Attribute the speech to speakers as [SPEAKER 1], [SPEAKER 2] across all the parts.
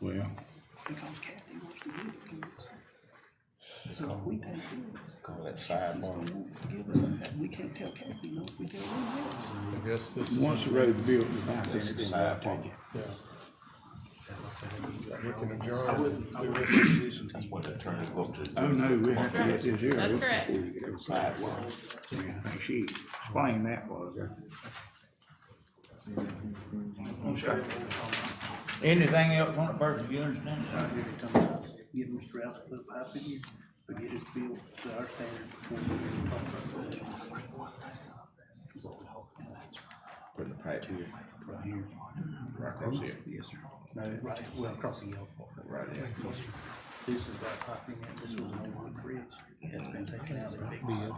[SPEAKER 1] Well,
[SPEAKER 2] because Kathy wants to give it to us. So if we pay bills,
[SPEAKER 3] Call that sidebar.
[SPEAKER 2] she won't give us that, we can't tell Kathy no, if we tell her yes.
[SPEAKER 4] I guess this is.
[SPEAKER 1] once the road's built, it's not finished, then I'll take it.
[SPEAKER 4] Yeah. We can adjourn.
[SPEAKER 3] I wouldn't, I wouldn't. That's what the attorney looked at.
[SPEAKER 1] Oh, no, we have to get this here.
[SPEAKER 5] That's correct.
[SPEAKER 1] Before you get over sidewalk. I mean, I think she explained that was. Anything else on it, Bert, do you understand?
[SPEAKER 2] Get Mr. Rouse to put a pipe in here, but get it built to our standard before we even talk about it.
[SPEAKER 3] Putting the pipe here,
[SPEAKER 2] Right here.
[SPEAKER 3] right across here,
[SPEAKER 2] Yes, sir. No, right, well, across the yellow part.
[SPEAKER 3] right there.
[SPEAKER 2] This is that pipe in here, this was an old one bridge, that's been taken out of the big one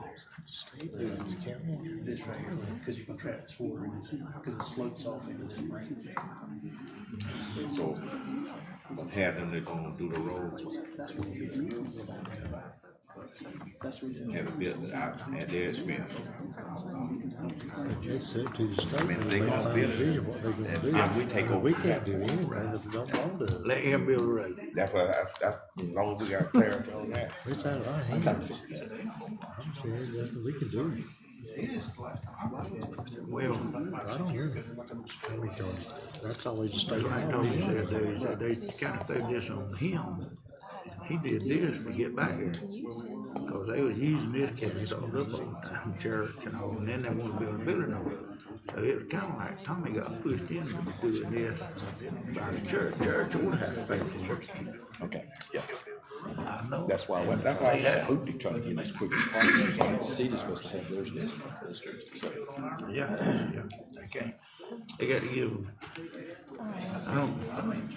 [SPEAKER 2] there. This right here, because you can trap this water in this, because it slopes off into the rain.
[SPEAKER 3] So, but having they're gonna do the roads,
[SPEAKER 2] That's what we get millions of dollars about. That's the reason.
[SPEAKER 3] have it built out at their expense.
[SPEAKER 6] It's up to the state. I
[SPEAKER 3] mean, they gonna build it.
[SPEAKER 6] What they gonna
[SPEAKER 3] And
[SPEAKER 6] do.
[SPEAKER 3] then we take
[SPEAKER 6] But We
[SPEAKER 3] over.
[SPEAKER 6] can't do anything if we don't want to.
[SPEAKER 1] Let him build a road.
[SPEAKER 3] That's why, I, I, as long as we got clarity on that.
[SPEAKER 6] It's out of our hands. I'm saying, nothing we can do.
[SPEAKER 1] Well,
[SPEAKER 6] I don't hear that. I mean, 'cause That's always the state.
[SPEAKER 1] like
[SPEAKER 6] law.
[SPEAKER 1] Tony said, they, they kinda threw this on him. He did this to get back here. Cause they was using this to install up on church and all, and then they wanna build a building over it. So it was kinda like Tommy got pushed into doing this by the church, church would have to pay for it.
[SPEAKER 3] Okay, yeah,
[SPEAKER 1] I know.
[SPEAKER 3] that's why, I went- that's why I was hoping, trying to get as quick as possible. The city's supposed to have theirs district, so.
[SPEAKER 1] Yeah, yeah, they can't, they got to give them. I don't, I mean,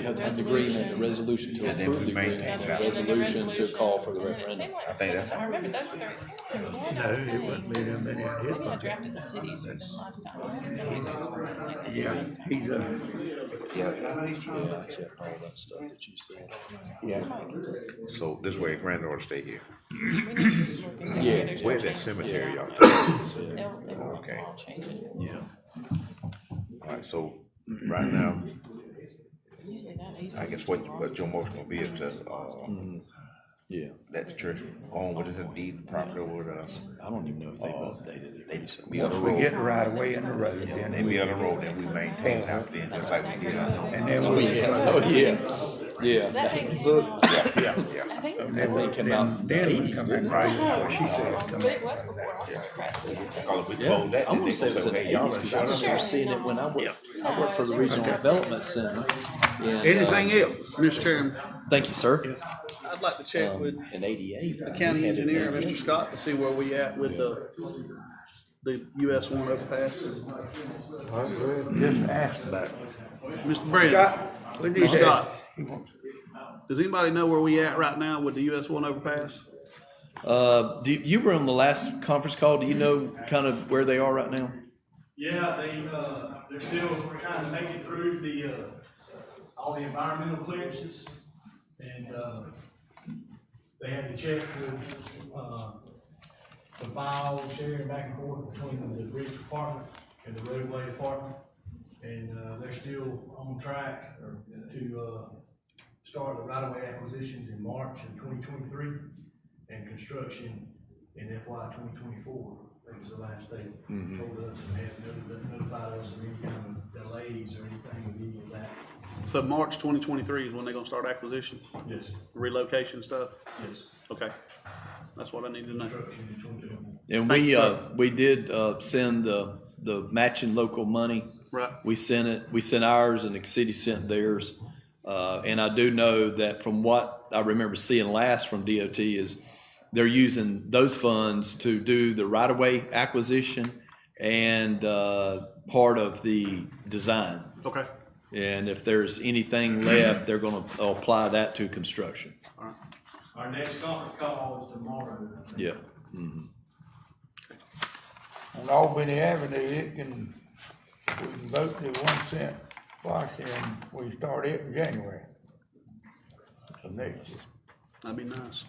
[SPEAKER 7] have the agreement, the resolution to
[SPEAKER 3] Yeah, then we
[SPEAKER 7] approve the agreement,
[SPEAKER 3] maintain
[SPEAKER 7] and
[SPEAKER 3] that.
[SPEAKER 7] the resolution to call for the referendum.
[SPEAKER 5] I
[SPEAKER 3] think that's-
[SPEAKER 5] I remember those three, it seemed like we had
[SPEAKER 1] no,
[SPEAKER 5] a
[SPEAKER 1] it wouldn't
[SPEAKER 5] thing.
[SPEAKER 1] be them in his
[SPEAKER 5] Maybe I
[SPEAKER 1] pocket.
[SPEAKER 5] drafted the cities for them last time. I don't know.
[SPEAKER 1] Yeah, he's uh, a,
[SPEAKER 3] Yeah,
[SPEAKER 7] Yeah, except all that stuff that you said.
[SPEAKER 1] yeah,
[SPEAKER 3] so this way granddaughter stay here.
[SPEAKER 5] We need to just look at it.
[SPEAKER 7] Yeah.
[SPEAKER 5] There's no
[SPEAKER 3] Where's that
[SPEAKER 5] changes
[SPEAKER 3] cemetery
[SPEAKER 5] around
[SPEAKER 3] y'all
[SPEAKER 5] it.
[SPEAKER 7] talking
[SPEAKER 5] They'll- they want
[SPEAKER 3] Okay.
[SPEAKER 5] small changes.
[SPEAKER 7] Yeah.
[SPEAKER 3] Alright, so right now,
[SPEAKER 5] Usually that easy.
[SPEAKER 3] I guess what, what your motion will be is just, uh,
[SPEAKER 7] Yeah,
[SPEAKER 3] let the church go on with the deed property over to us.
[SPEAKER 7] I don't even know if they've updated it.
[SPEAKER 3] They just, we on
[SPEAKER 1] once
[SPEAKER 3] the
[SPEAKER 1] we get
[SPEAKER 3] road,
[SPEAKER 1] the right of way in the road, then
[SPEAKER 3] and
[SPEAKER 1] it,
[SPEAKER 3] we on the road, and we maintain out there, just like we did our own.
[SPEAKER 1] and then
[SPEAKER 7] Oh,
[SPEAKER 1] we'll.
[SPEAKER 7] yeah, oh, yeah, yeah.
[SPEAKER 5] That thing came out,
[SPEAKER 3] Yeah, yeah, yeah.
[SPEAKER 5] I think,
[SPEAKER 1] Then
[SPEAKER 7] They came
[SPEAKER 1] then-
[SPEAKER 7] out in the
[SPEAKER 1] then we
[SPEAKER 7] 80s,
[SPEAKER 1] come back
[SPEAKER 7] didn't they?
[SPEAKER 1] right before she said,
[SPEAKER 5] but it was before I started practicing.
[SPEAKER 3] Call it, we
[SPEAKER 7] Yeah,
[SPEAKER 3] close Oh, that, and
[SPEAKER 7] I wanna
[SPEAKER 3] they
[SPEAKER 7] say it
[SPEAKER 3] gonna
[SPEAKER 7] was in the
[SPEAKER 3] say, hey, y'all
[SPEAKER 7] eighties,
[SPEAKER 3] done
[SPEAKER 7] cause I
[SPEAKER 3] shut up.
[SPEAKER 7] remember seeing it when I worked, I worked for the Regional Development Center. and, uh,
[SPEAKER 1] anything else?
[SPEAKER 8] Mr. Chairman,
[SPEAKER 7] Thank you, sir.
[SPEAKER 8] I'd like to check
[SPEAKER 7] Um,
[SPEAKER 8] with
[SPEAKER 7] in eighty-eight.
[SPEAKER 8] the county engineer, Mr. Scott, to see where we at with the, the US one overpass.
[SPEAKER 1] Just asked about it.
[SPEAKER 8] Mr. Brandon,
[SPEAKER 1] Scott, we need to
[SPEAKER 8] Scott.
[SPEAKER 1] ask. He wants-
[SPEAKER 8] does anybody know where we at right now with the US one overpass?
[SPEAKER 7] Uh, do, you were on the last conference call. Do you know kind of where they are right now?
[SPEAKER 9] Yeah, they, uh, they're still trying to make it through the, uh, all the environmental clearances. And, uh, they had to check the, uh, the file sharing back and forth between the bridge department and the roadway department. And, uh, they're still on track to, uh, start the right-of-way acquisitions in March of twenty twenty-three and construction in FY twenty twenty-four. I think was the last they told us and had noti- notified us of any kind of delays or anything of any of that.
[SPEAKER 8] So March twenty twenty-three is when they're gonna start acquisition,
[SPEAKER 9] Yes,
[SPEAKER 8] relocation stuff?
[SPEAKER 9] yes,
[SPEAKER 8] Okay, that's what I need to know.
[SPEAKER 9] construction in twenty twenty-four.
[SPEAKER 7] And
[SPEAKER 8] Thank
[SPEAKER 7] we,
[SPEAKER 8] you,
[SPEAKER 7] uh, we did, uh, send the, the matching local money.
[SPEAKER 8] Right.
[SPEAKER 7] We sent it, we sent ours and the city sent theirs. Uh, and I do know that from what I remember seeing last from DOT is they're using those funds to do the right-of-way acquisition and, uh, part of the design.
[SPEAKER 8] Okay,
[SPEAKER 7] And if there's anything left, they're gonna apply that to construction.
[SPEAKER 9] Our next conference call is tomorrow. I think.
[SPEAKER 7] Yeah.
[SPEAKER 1] On Albany Avenue, it can, we can vote the one cent wash and we start it in January. The next.
[SPEAKER 8] that'd be nice.